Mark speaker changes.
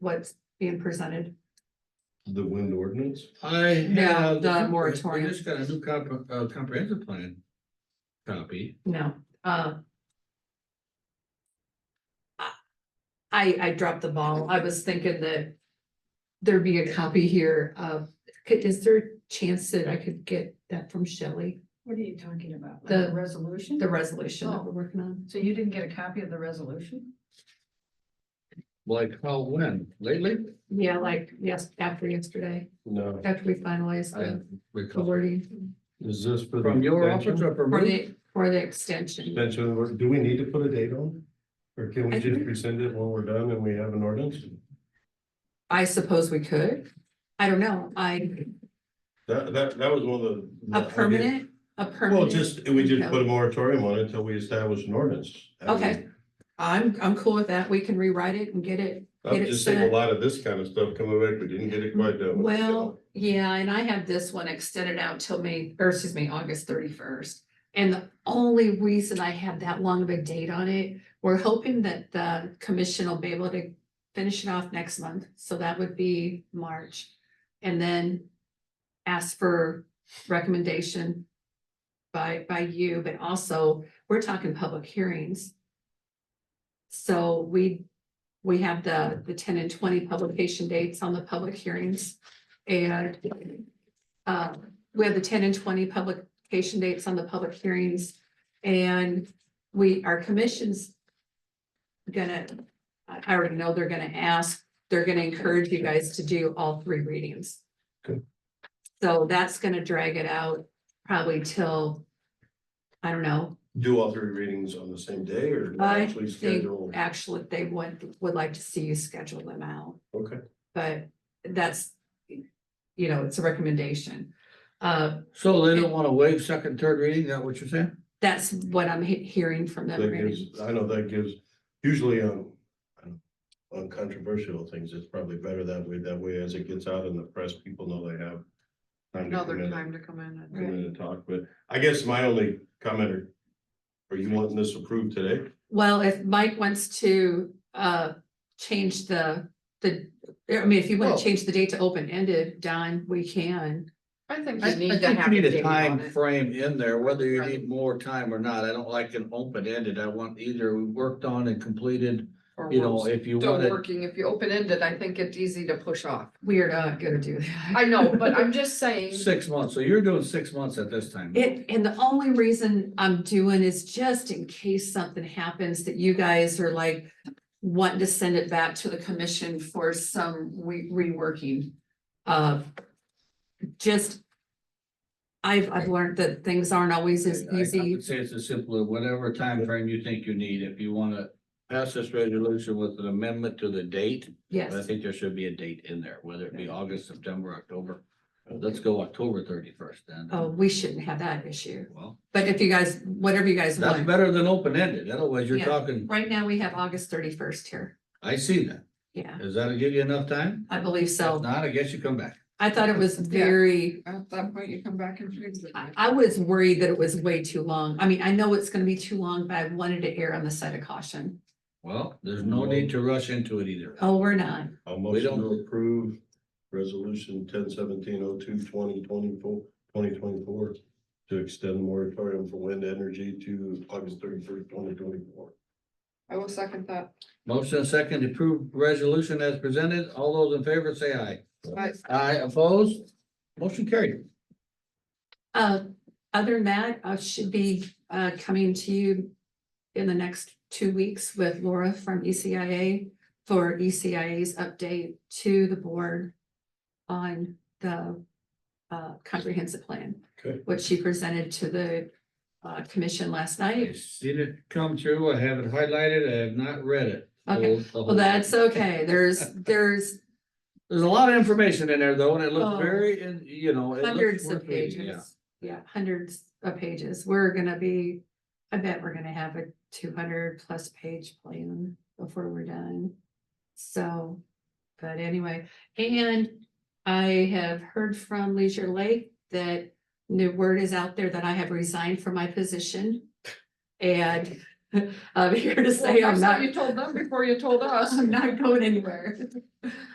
Speaker 1: what's being presented?
Speaker 2: The wind ordinance?
Speaker 3: I
Speaker 1: No,
Speaker 3: have.
Speaker 1: the
Speaker 3: I
Speaker 1: moratorium.
Speaker 3: just got a new comp- uh, comprehensive plan copy.
Speaker 1: No, uh. I, I dropped the ball. I was thinking that there'd be a copy here of, could, is there a chance that I could get that from Shelley?
Speaker 4: What are you talking about? Like
Speaker 1: The-
Speaker 4: resolution?
Speaker 1: The resolution that we're working on?
Speaker 4: So you didn't get a copy of the resolution?
Speaker 3: Like, how, when, lately?
Speaker 1: Yeah, like, yes, after yesterday,
Speaker 2: No.
Speaker 1: after we finalized the the
Speaker 3: Because-
Speaker 1: wording
Speaker 2: Is this for? the
Speaker 3: From your office
Speaker 2: extension?
Speaker 3: or from?
Speaker 1: for
Speaker 3: me?
Speaker 1: the, for the extension.
Speaker 2: Extension, of the- do we need to put a date on? Or can we
Speaker 1: I
Speaker 2: just
Speaker 1: think-
Speaker 2: rescind it when we're done and we have an ordinance?
Speaker 1: I suppose we could. I don't know. I,
Speaker 2: That, that, that was one of the.
Speaker 1: a permanent, a permanent.
Speaker 2: Well, just, we just
Speaker 1: no.
Speaker 2: put a moratorium on it until we establish an ordinance. I mean,
Speaker 1: Okay. I'm, I'm cool with that. We can rewrite it and get it. Get
Speaker 2: I've
Speaker 1: it
Speaker 2: just seen a
Speaker 1: set.
Speaker 2: lot of this kind of stuff coming back, we didn't get it quite done.
Speaker 1: Well, yeah, and I have this one extended out till May, or excuse me, August thirty-first. And the only reason I have that long of a date on it, we're hoping that the commission will be able to finish it off next month, so that would be March. And then ask for recommendation by, by you, but also, we're talking public hearings. So we, we have the, the ten and twenty publication dates on the public hearings. And uh, we have the ten and twenty publication dates on the public hearings. And we, our commission's gonna, I I already know they're gonna ask, they're gonna encourage you guys to do all three readings.
Speaker 2: Good.
Speaker 1: So that's gonna drag it out probably till, I don't know,
Speaker 2: Do all three readings on the same day or
Speaker 1: I
Speaker 2: actually
Speaker 1: think
Speaker 2: schedule?
Speaker 1: actually they would, would like to see you schedule them out.
Speaker 2: Okay,
Speaker 1: but that's, you know, it's a recommendation. Uh,
Speaker 3: So they don't wanna waive second, third reading, is that what you're saying?
Speaker 1: that's what I'm he- hearing from them.
Speaker 2: that
Speaker 1: Randy.
Speaker 2: gives, I know that gives, usually um, on, on controversial things, it's probably better that way, that way as it gets out in the press, people know they have. time to come
Speaker 5: Another
Speaker 2: in-
Speaker 5: time to come in
Speaker 2: Come in
Speaker 5: and.
Speaker 2: and talk, but I guess my only comment are, are you wanting this approved today?
Speaker 1: Well, if Mike wants to, uh, change the, the, I mean, if you want
Speaker 3: Well-
Speaker 1: to change the date to open ended, Don, we can.
Speaker 5: I think
Speaker 3: I I
Speaker 5: you need to
Speaker 3: think
Speaker 5: have.
Speaker 3: you need a
Speaker 5: date on
Speaker 3: time
Speaker 5: it.
Speaker 3: frame in there, whether you
Speaker 5: Right.
Speaker 3: need more time or not. I don't like an open ended. I want either worked on and completed.
Speaker 5: Or
Speaker 3: You know,
Speaker 5: we're
Speaker 3: if you
Speaker 5: Still
Speaker 3: want it,
Speaker 5: working, if you open ended, I think it's easy to push off.
Speaker 1: We are not gonna do that.
Speaker 5: I know, but I'm just saying,
Speaker 3: six months. So you're doing six months at this time.
Speaker 1: It, and the only reason I'm doing is just in case something happens that you guys are like wanting to send it back to the commission for some re- reworking of just I've, I've learned that things aren't always as
Speaker 3: I- I
Speaker 1: easy.
Speaker 3: would Say it's as simple as whatever time frame you think you need. If you wanna pass this resolution with an amendment to the date, but I
Speaker 1: Yes,
Speaker 3: think there should be a date in there, whether it be August, September, October. Let's go October thirty-first then.
Speaker 1: oh, we shouldn't have that issue.
Speaker 3: Well,
Speaker 1: But if you guys, whatever you guys
Speaker 3: that's
Speaker 1: want,
Speaker 3: better than open ended. Otherwise, you're
Speaker 1: Yeah.
Speaker 3: talking,
Speaker 1: right now we have August thirty-first here.
Speaker 3: I see that.
Speaker 1: Yeah,
Speaker 3: Does that give you enough time?
Speaker 1: I believe
Speaker 3: If
Speaker 1: so.
Speaker 3: not, I guess you come back.
Speaker 1: I thought it was
Speaker 5: Yeah.
Speaker 1: very
Speaker 5: at that point, you come back and fix it.
Speaker 1: I, I was worried that it was way too long. I mean, I know it's gonna be too long, but I wanted to err on the side of caution.
Speaker 3: Well, there's no need to rush into it either.
Speaker 1: Oh, we're not.
Speaker 2: I'll
Speaker 3: We
Speaker 2: motion to
Speaker 3: don't-
Speaker 2: approve resolution ten seventeen oh two twenty twenty-four, twenty twenty-four to extend the moratorium for wind energy to August thirty-first, twenty twenty-four.
Speaker 5: I will second that.
Speaker 3: Motion and second to approve resolution as presented. All those in favor say aye.
Speaker 5: I,
Speaker 3: Aye opposed. Motion carried.
Speaker 1: Uh, other than that, I should be, uh, coming to you in the next two weeks with Laura from E ECIA for E ECIA's update to the board on the, uh, comprehensive plan.
Speaker 2: Okay.
Speaker 1: Which she presented to the, uh, commission last night.
Speaker 3: I seen it come through. I have it highlighted. I have not read it.
Speaker 1: Okay. Well, that's okay. There's, there's
Speaker 3: There's a lot of information in there though, and it
Speaker 1: Oh.
Speaker 3: looks very, and you know. it looks
Speaker 1: Hundreds of
Speaker 3: worth reading, yeah.
Speaker 1: pages, yeah, hundreds of pages, we're gonna be, I bet we're gonna have a two hundred plus page plan before we're done. So, but anyway, and I have heard from Leisure Lake that the word is out there that I have resigned from my position. And
Speaker 4: I'm here to
Speaker 1: Well,
Speaker 4: say I'm
Speaker 1: first
Speaker 4: not,
Speaker 1: You told them before you told us.
Speaker 4: I'm not going anywhere.